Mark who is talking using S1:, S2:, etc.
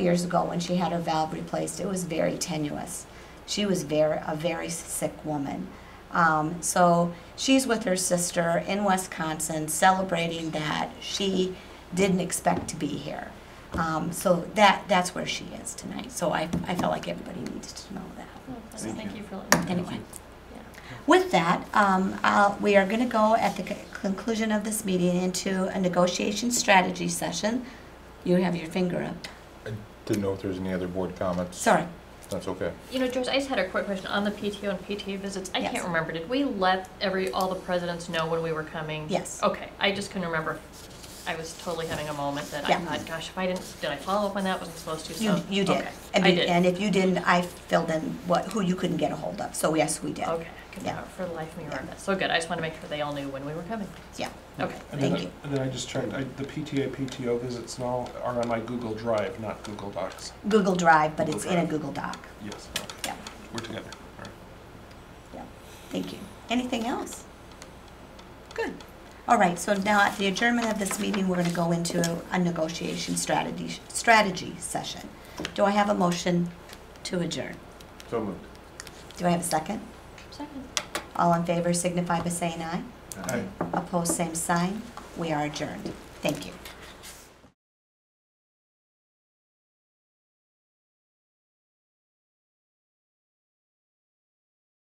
S1: years ago when she had her valve replaced, it was very tenuous. She was very a very sick woman. Um, so she's with her sister in Wisconsin celebrating that she didn't expect to be here. Um, so that that's where she is tonight. So I, I felt like everybody needs to know that.
S2: Well,
S3: Thank
S2: Thank you for
S3: Thank
S2: letting me.
S1: Anyway,
S2: Yeah.
S1: with that, um, I'll, we are going to go at the c- conclusion of this meeting into a negotiation strategy session. You have your finger up.
S3: Didn't know if there's any other board comments.
S1: Sorry.
S3: That's okay.
S2: You know, Joyce, I just had a quick question on the PTO and PTA visits. I
S1: Yes.
S2: can't remember, did we let every, all the presidents know when we were coming?
S1: Yes.
S2: Okay, I just couldn't remember. I was totally having a moment that I
S1: Yeah.
S2: thought, gosh, if I didn't, did I follow up on that? Wasn't supposed to,
S1: You,
S2: so.
S1: you did.
S2: okay,
S1: And
S2: I
S1: be-
S2: did.
S1: And if you didn't, I filled in what, who you couldn't get a hold of. So yes, we did.
S2: Okay, I could
S1: Yeah.
S2: not for the life of me
S1: Yeah.
S2: remember that. So good, I just want to make sure they all knew when we were coming.
S1: Yeah.
S2: Okay,
S4: And
S1: Thank
S4: then,
S1: you.
S4: And then I just checked, I, the PTA, PTO visits now are on my Google Drive, not Google Docs.
S1: Google Drive, but it's in a
S4: Google
S1: Google Doc.
S4: Yes, okay,
S1: Yeah,
S4: we're together. All right.
S1: yeah. Thank you. Anything else? Good. All right, so now at the adjournment of this meeting, we're going to go into a negotiation strategy, strategy session. Do I have a motion to adjourn?
S3: So moved.
S1: Do I have a second?
S2: second.
S1: All in favor signify by saying aye.
S4: Aye.
S1: Opposed, same sign. We are adjourned. Thank you.